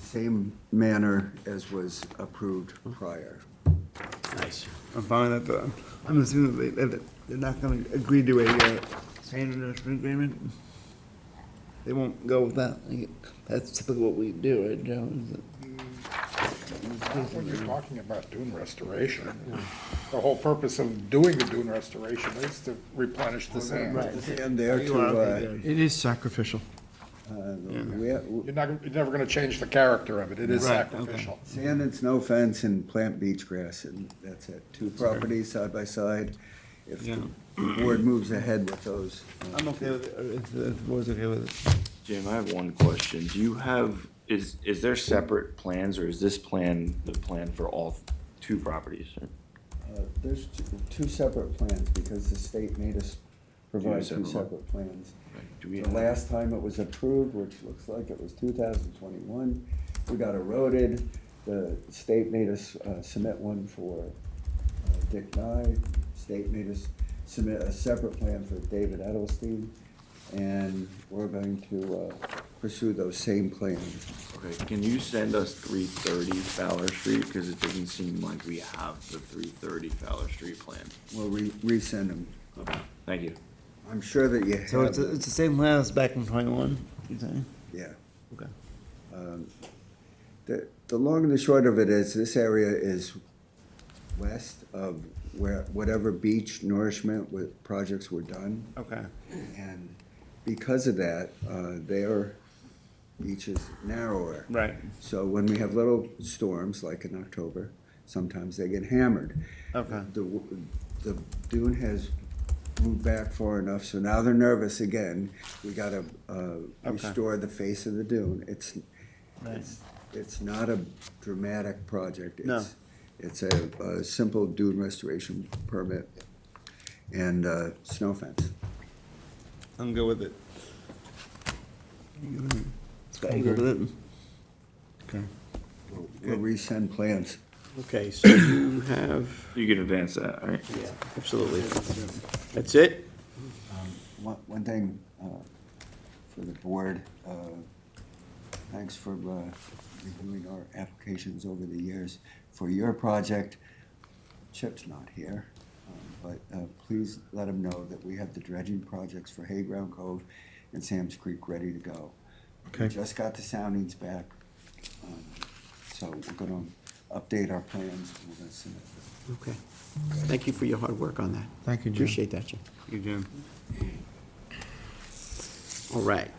same manner as was approved Hmm. prior. Nice. I'm fine with that, but I'm assuming that they, that they're not gonna agree to a, uh, standard investment agreement. They won't go with that. Like, That's typically what we do, right, Joe? Is it- When you're talking about dune restoration, the whole purpose of doing the dune restoration is to replenish the sand. And there You to, are, uh, okay, good. It is sacrificial. uh, where- You're not, you're never gonna change the character of it, it is Right, okay. sacrificial. Sand and snow fence and plant beach grass, and that's it. Two properties side by side. If the board moves ahead with those. uh, I'm okay with it, or if, uh, if the board's okay with it. Jim, I have one question. Do you have, is, is there separate plans or is this plan the plan for all two properties? uh, There's two- two separate plans, because the state made us provide two separate- separate plans. Do we The last time it was approved, which looks like it was two thousand twenty-one, we got eroded. The state made us uh, submit one for uh, Dick Nye. State made us submit a separate plan for David Edelstein. And we're going to uh, pursue those same plans. Okay, can you send us three thirty Fowler Street? Because it doesn't seem like we have the three thirty Fowler Street plan. We'll re- resend them. Okay, thank you. I'm sure that you So it's, have, it's the same plan as back in twenty-one, you saying? yeah. Um, Okay. The, the long and the short of it is, this area is west of where, whatever beach nourishment with projects were done. Okay. And because of that, uh, their beach is narrower. Right. So when we have little storms, like in October, sometimes they get hammered. Okay. The, w- the dune has moved back far enough, so now they're nervous again. We gotta, uh, restore the face of the dune. It's, it's, it's not a dramatic project. No. It's- It's a, a simple dune restoration permit and, uh, snow fence. I'm good with it. You good with it? Scott, you good with it? Okay. We'll resend plans. Okay, so you have, You can advance that, all right? yeah, absolutely. That's it? One, one thing, uh, for the board, uh, thanks for, uh, reviewing our applications over the years. For your project, Chip's not here, um, but, uh, please let him know that we have the dredging projects for Hayground Cove and Sam's Creek ready to go. We Okay. Just got the soundings back, um, so we're gonna update our plans, and we're gonna submit them. Okay. Thank you for your hard work on that. Thank you, Jim. Appreciate that, Jim. You, Jim. All right.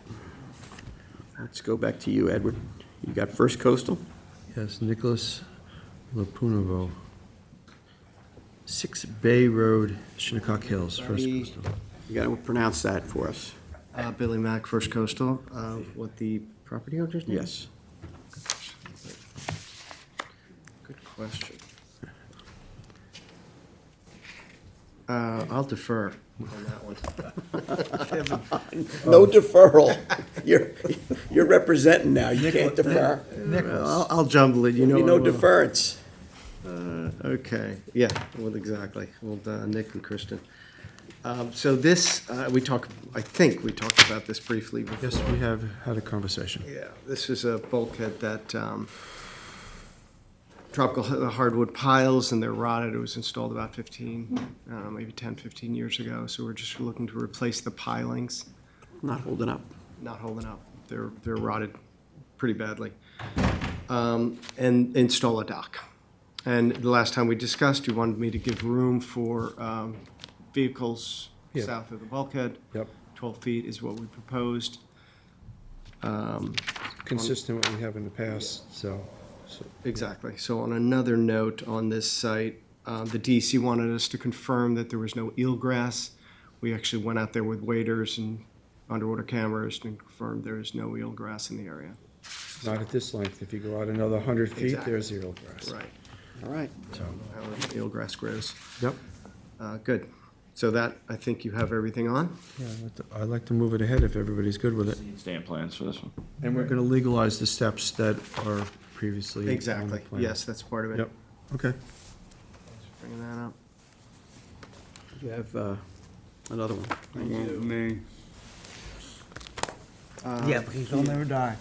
Let's go back to you, Edward. You got First Coastal, Yes, Nicholas Lapunovo, 6 Bay Road, Shinnecock Hills, First Sorry. Coastal. you gotta pronounce that for us. Uh, Billy Mack, First Coastal, uh, what the property owner's name? is? Yes. Good question. Uh, I'll defer on that one. No deferral. You're, you're representing now. You can't defer. I'll, I'll jumble it, you know. You know I will. deference. Uh, Okay, yeah, well, exactly, well, uh, Nick and Kristen. Um, So this, uh, we talked, I think we talked about this briefly before. Yes, we have had a conversation. Yeah, this is a bulkhead that um, tropical h- uh, hardwood piles and they're rotted. It was installed about 15, uh, maybe 10, 15 years ago. So we're just looking to replace the pilings, Not holding up. not holding up. They're, they're rotted pretty badly. Um, And install a dock. And the last time we discussed, you wanted me to give room for um, vehicles Yeah. south of the bulkhead. Yep. 12 feet is what we proposed. Consistent with what we have in the past, so, so Exactly. So on another note on this site, uh, the DEC wanted us to confirm that there was no eelgrass. We actually went out there with waders and underwater cameras and confirmed there is no eelgrass in the area. not at this length. If you go out another 100 feet, Exactly. there's zero grass. Right. All right. However, eelgrass grows. Yep. Uh, Good. So that, I think you have everything on? Yeah, I'd like to- I'd like to move it ahead if everybody's good with it. Stand plans for this one. And we're going to legalize the steps that are previously on the um, Exactly. plan. Yes, that's part of it. Yep, okay. Bringing that up. You have uh, another one. Me. Uh, Yeah, please don't ever die.